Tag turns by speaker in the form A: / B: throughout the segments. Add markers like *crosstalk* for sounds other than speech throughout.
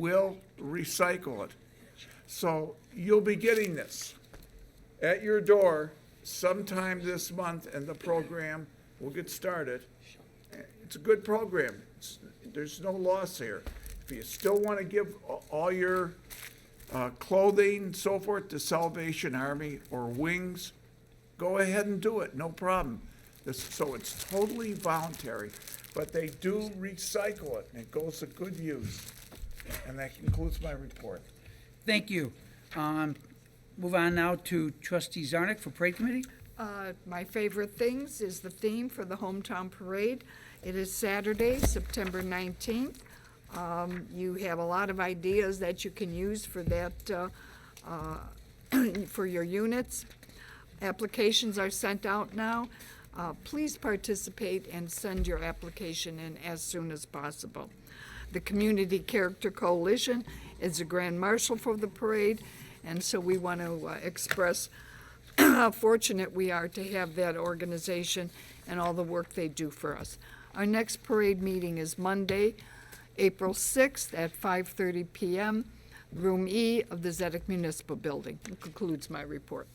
A: will recycle it. So you'll be getting this at your door sometime this month, and the program will get started. It's a good program. It's- There's no loss here. If you still want to give a- all your uh, clothing, so forth, to Salvation Army or Wings, go ahead and do it, no problem. This, so it's totally voluntary, but they do recycle it, and it goes to good use. And that concludes my report.
B: Thank you. Um, Move on now to trustee Zarnik for parade committee.
C: Uh, My favorite things is the theme for the hometown parade. It is Saturday, September 19th. Um, You have a lot of ideas that you can use for that, uh, *clears throat* uh, for your units. Applications are sent out now. Uh, Please participate and send your application in as soon as possible. The Community Character Coalition is the grand marshal for the parade, and so we want to uh, express how fortunate we are to have that organization and all the work they do for us. Our next parade meeting is Monday, April 6th at 5:30 PM, Room E of the Zedek Municipal Building. That Concludes my report.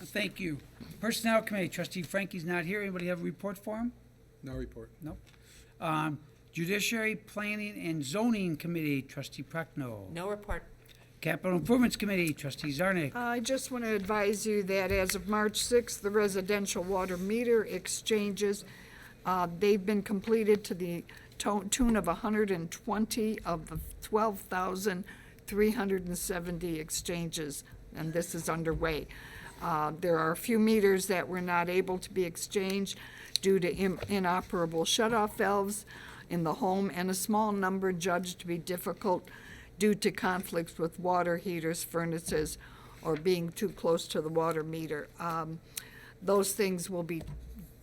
B: Thank you. Personnel committee, trustee Frankie's not here. Anybody have a report for him?
D: No report.
B: Nope. Um, Judiciary, Planning, and Zoning Committee, trustee Prochnow.
E: No report.
B: Capital Improvements Committee, trustee Zarnik.
C: I just want to advise you that as of March 6th, the residential water meter exchanges, uh, they've been completed to the to- tune of 120 of the 12,370 exchanges, and this is underway. Uh, There are a few meters that were not able to be exchanged due to im- inoperable shut-off valves in the home, and a small number judged to be difficult due to conflicts with water heaters, furnaces, or being too close to the water meter. Um, Those things will be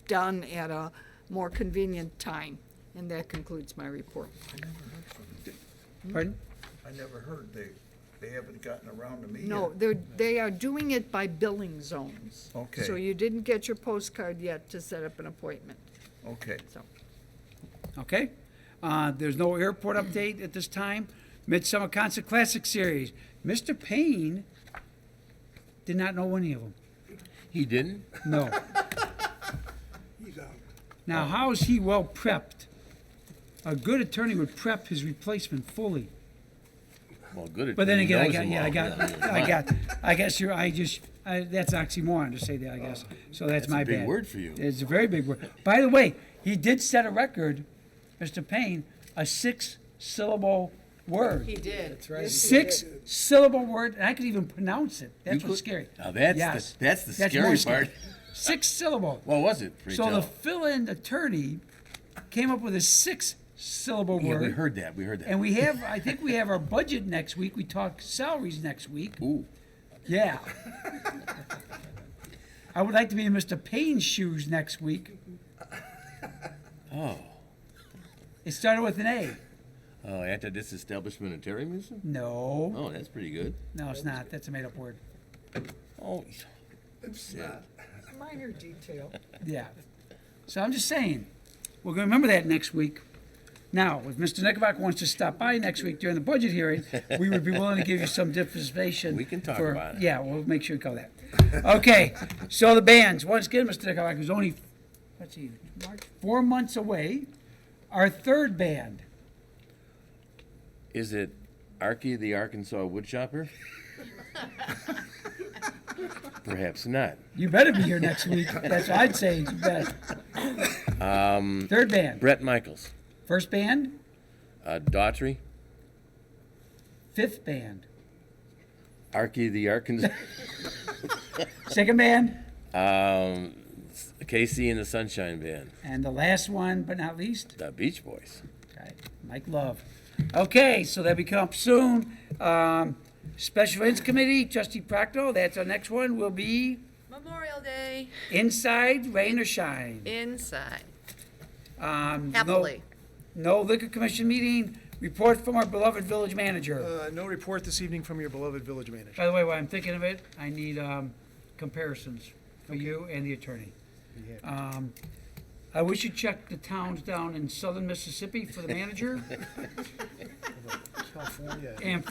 C: done at a more convenient time. And that concludes my report.
B: Pardon?
A: I never heard they, they haven't gotten around to me
C: No, they're, they are doing it by billing zones.
A: Okay.
C: So you didn't get your postcard yet to set up an appointment,
A: Okay.
C: so.
B: Okay. Uh, There's no airport update at this time. Midsummer Concert Classic Series. Mr. Payne did not know any of them.
F: He didn't?
B: *laughs* No. Now, how is he well prepped? A good attorney would prep his replacement fully.
F: Well, good.
B: But then
F: he
B: again, I
F: knows
B: got,
F: them
B: yeah, I
F: all.
B: got,
F: Yeah,
B: I got, I guess you're, I just, I, that's oxymoron to say that, I guess. So that's
F: Oh, That's a
B: my bad.
F: big word for you.
B: It's a very big word. By the way, he did set a record, Mr. Payne, a six-syllable word.
E: He did.
D: That's right.
B: Six-syllable word, and I could even pronounce it. That's
F: You
B: what's
F: could-
B: scary.
F: Now, that's the-
B: Yes.
F: that's the
B: more
F: scary
B: scary.
F: part.
B: Six-syllable.
F: *laughs* What was it? Oh, pray
B: So
F: tell?
B: the fill-in attorney came up with a six-syllable
F: yeah,
B: word.
F: we heard that. We heard that.
B: And we have, I think we have our budget next week. We talk salaries next week.
F: Ooh,
B: Yeah. I would like to be in Mr. Payne's shoes next week.
F: oh,
B: It started with an A.
F: oh, anti-disestablishmentarianism.
B: No,
F: Oh, that's pretty good.
B: no, it's not. That's a made-up word.
F: Oh,
C: Minor detail.
B: Yeah. So I'm just saying, we're going to remember that next week. Now, if Mr. Knickerbocker wants to stop by next week during the budget hearing, we would be willing to give you some dispensation.
F: We can talk
B: for-
F: about it.
B: Yeah, we'll make sure to cover that. Okay, so the bands, once again, Mr. Knickerbocker is only, let's see, March, four months away. Our third band,
F: is it Archie the Arkansas woodchopper? Perhaps not.
B: you better be here next week. That's what I'd say, you better.
F: Um,
B: Third band,
F: Brett Michaels,
B: first band,
F: uh, Daughtry,
B: fifth band,
F: Archie the Arkansas, *laughs*
B: second band,
F: um, Casey and the Sunshine Band,
B: and the last one, but not least,
F: the Beach Boys.
B: Okay, Mike Love. Okay, so that becomes soon. Um, Special Events Committee, Trustee Proctor, that's our next one, will be
E: Memorial Day
B: inside, rain or shine.
E: inside.
B: Um, no-
E: Happily.
B: No liquor commission meeting, report from our beloved village manager.
D: Uh, no report this evening from your beloved village manager.
B: By the way, while I'm thinking of it, I need um, comparisons for you and the attorney. Um, I wish you checked the towns down in southern Mississippi for the manager
D: *laughs* California.
B: and